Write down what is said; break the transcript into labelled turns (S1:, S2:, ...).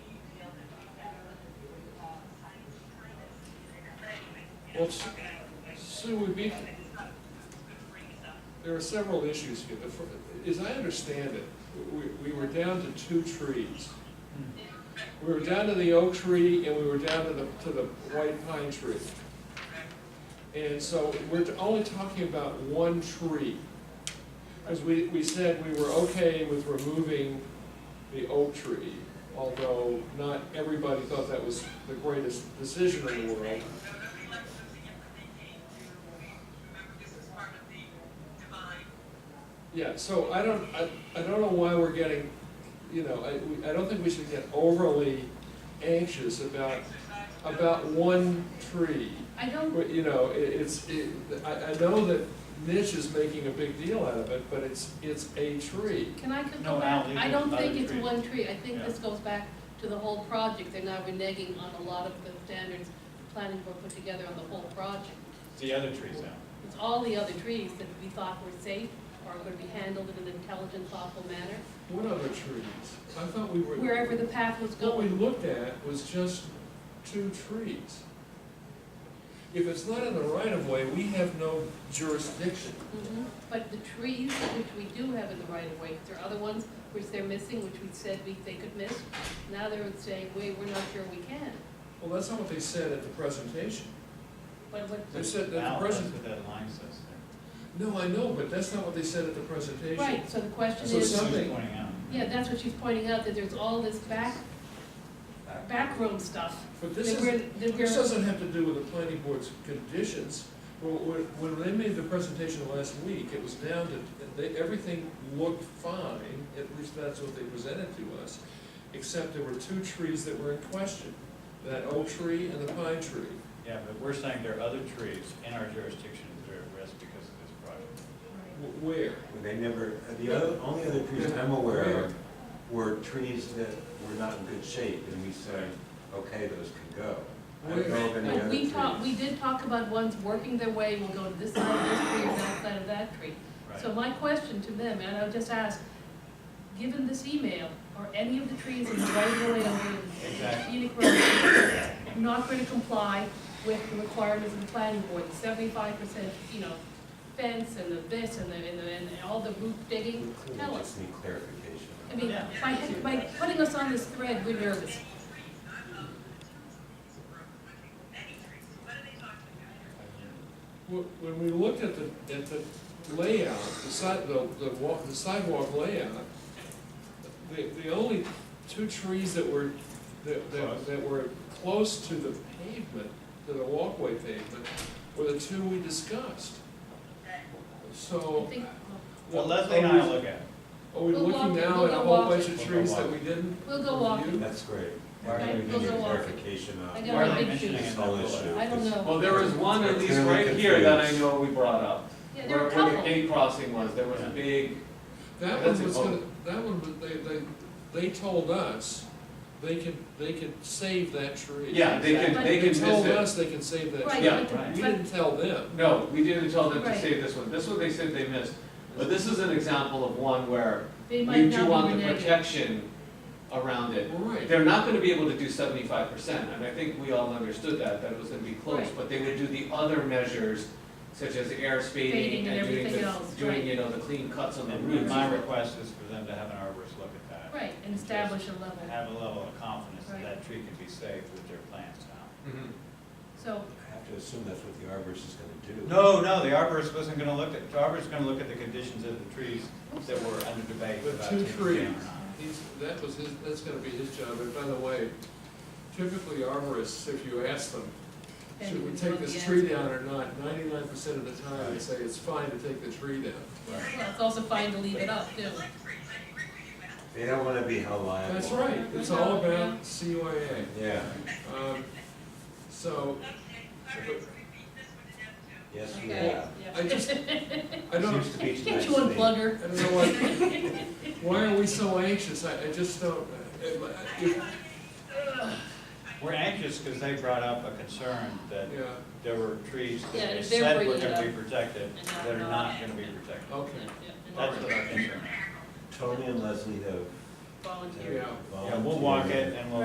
S1: Let's, Sue, we be, there are several issues here. The fir- As I understand it, we, we were down to two trees. We were down to the oak tree and we were down to the, to the white pine tree. And so we're only talking about one tree. As we, we said, we were okay with removing the oak tree, although not everybody thought that was the greatest decision in the world. Yeah, so I don't, I, I don't know why we're getting, you know, I, we- I don't think we should get overly anxious about, about one tree.
S2: I don't,
S1: But, you know, it, it's, it, I, I know that Mitch is making a big deal out of it, but it's, it's a tree.
S2: can I just
S3: No,
S2: go back?
S3: Al, leave
S2: I
S3: it
S2: don't
S3: other
S2: think it's
S3: trees.
S2: one tree, I think
S3: Yeah.
S2: this goes back to the whole project, they're now reneging on a lot of the standards the planning board put together on the whole project.
S3: The other trees out.
S2: It's all the other trees that we thought were safe or could be handled in an intelligent, thoughtful manner,
S1: What other trees? I thought we were.
S2: wherever the path was
S1: What we
S2: going.
S1: looked at was just two trees. If it's not in the right of way, we have no jurisdiction.
S2: Mhm. But the trees, which we do have in the right of way, 'cause there are other ones which they're missing, which we said we, they could miss. Now they're saying, wait, we're not sure we can.
S1: Well, that's not what they said at the presentation.
S2: But what,
S1: They said that the
S3: Al,
S1: president-
S3: That's what that line says there.
S1: No, I know, but that's not what they said at the presentation.
S2: right, so the question
S3: That's
S1: So
S3: what
S2: is,
S3: Sue's
S1: something-
S3: pointing out.
S2: yeah, that's what she's pointing out, that there's all this back, backroom stuff.
S1: But
S2: That
S1: this
S2: we're,
S1: is,
S2: that
S1: this
S2: we're,
S1: doesn't have to do with the planning board's conditions. When, when when they made the presentation last week, it was down to, they, everything looked fine, at least that's what they presented to us, except there were two trees that were in question, that oak tree and the pine tree.
S3: Yeah, but we're saying there are other trees in our jurisdiction that are at risk because of this project.
S1: W- Where?
S4: Well, They never, the other, only other trees I'm aware of were trees that were not in good shape, and we said, okay, those could go. I don't know of any
S2: but
S4: other
S2: we talked, we
S4: trees.
S2: did talk about ones working their way, will go to this side of this tree or that side of that tree. So
S3: Right.
S2: my question to them, and I'll just ask, given this email, are any of the trees in the right of way of the
S3: Exactly.
S2: scenic road not going to comply with the requirements of the planning board, the seventy-five percent, you know, fence and the this and the, and the, and all the root digging?
S4: We
S2: Tell us.
S4: Just need clarification.
S2: I mean,
S3: Yeah.
S2: by, by putting us on this thread, we're nervous.
S1: Wh- When we looked at the, at the layout, the side, the, the wa, the sidewalk layout, the, the only two trees that were, that, that, that were close to the pavement, to the walkway pavement, were the two we discussed.
S2: I
S1: So.
S2: think,
S3: Well, Leslie and I
S1: are
S3: will
S1: we-
S3: look at it.
S1: Are we
S2: We'll
S1: looking
S2: walk-
S1: now
S2: we'll
S1: at a
S2: go
S1: whole
S2: walk
S1: bunch
S2: it.
S1: of trees that we didn't?
S2: We'll go walk it.
S1: review?
S4: That's great.
S3: Why
S4: I
S3: are
S4: think
S3: we
S4: we need
S2: gonna walk it?
S4: clarification
S2: I
S4: on
S2: got
S3: Why are
S2: a
S3: they
S2: big
S3: mentioning
S2: tree.
S3: it?
S4: this whole issue.
S2: I don't know.
S5: Well, there was one at least
S4: Clearly
S5: right here that I
S4: confused.
S5: know we brought up.
S2: yeah, there are a
S5: Where- Where the
S2: couple.
S5: gate crossing was, there was a
S3: Yeah.
S5: big,
S1: That
S5: That's
S1: one was
S5: it.
S1: gonna, that one, was- they, they, they told us they could, they could save that tree.
S5: yeah, they could,
S2: But-
S5: they
S1: They
S5: could
S1: told
S5: miss
S1: us they can save that
S2: Right,
S1: tree.
S5: Yeah,
S2: but-
S3: right.
S1: We
S2: but-
S1: didn't tell
S5: it.
S1: them.
S5: No, we didn't tell them to
S2: Right.
S5: save this one, this one they said they missed. But this is an example of one where
S2: They might
S5: we
S2: not
S5: do
S2: be
S5: want the
S2: reneging.
S5: protection around it.
S1: Right.
S5: They're not gonna be able to do seventy-five percent, and I think we all understood that, that it was gonna be close,
S2: Right.
S5: but they would do the other measures such as air
S2: Fading
S5: spading
S2: and
S5: and doing
S2: everything
S5: the,
S2: else, right.
S5: doing, you know, the clean cuts on the
S3: And
S5: roots.
S3: and my request is for them to have an arborist look at that.
S2: Right, and establish a level.
S3: To Have a level of confidence
S2: Right.
S3: that that tree can be saved with their plans now.
S5: Mhm.
S2: So,
S4: I have to assume that's what the arborist is gonna do.
S3: No, no, the arborist wasn't gonna look at, the arborist was gonna look at the conditions of the trees that were under debate
S1: The
S3: about
S1: two
S3: taking down or
S1: trees,
S3: not.
S1: he's, that was his, that's gonna be his job, and by the way, typically arborists, if you ask them,
S2: They
S1: should we
S2: would
S1: take
S2: know
S1: this
S2: the
S1: tree
S2: answer.
S1: down or not, ninety-nine percent of the time, they say it's fine to take the tree down.
S2: well, it's also fine to leave it up too.
S4: They don't wanna be held liable.
S1: That's right, it's all about CYA.
S4: Yeah,
S1: Um, So,
S4: yes, we
S2: Okay.
S4: have.
S1: I just, I don't,
S4: Seems to be
S2: Get
S4: tonight's
S2: you on
S1: I
S4: theme.
S2: plugger.
S1: don't know why, why are we so anxious, I, I just don't, uh, I- I-
S3: We're anxious because they brought up a concern that
S1: yeah,
S3: there were trees
S2: Yeah,
S3: that they
S2: if they're
S3: said were
S2: bringing it
S3: gonna be
S2: up
S3: protected,
S2: and not-
S3: that are
S2: not-
S3: not gonna be protected.
S1: okay.
S3: That's what our concern is.
S4: Tony and Leslie have.
S2: Volunteer.
S1: Yeah.
S3: Yeah, we'll walk it and we'll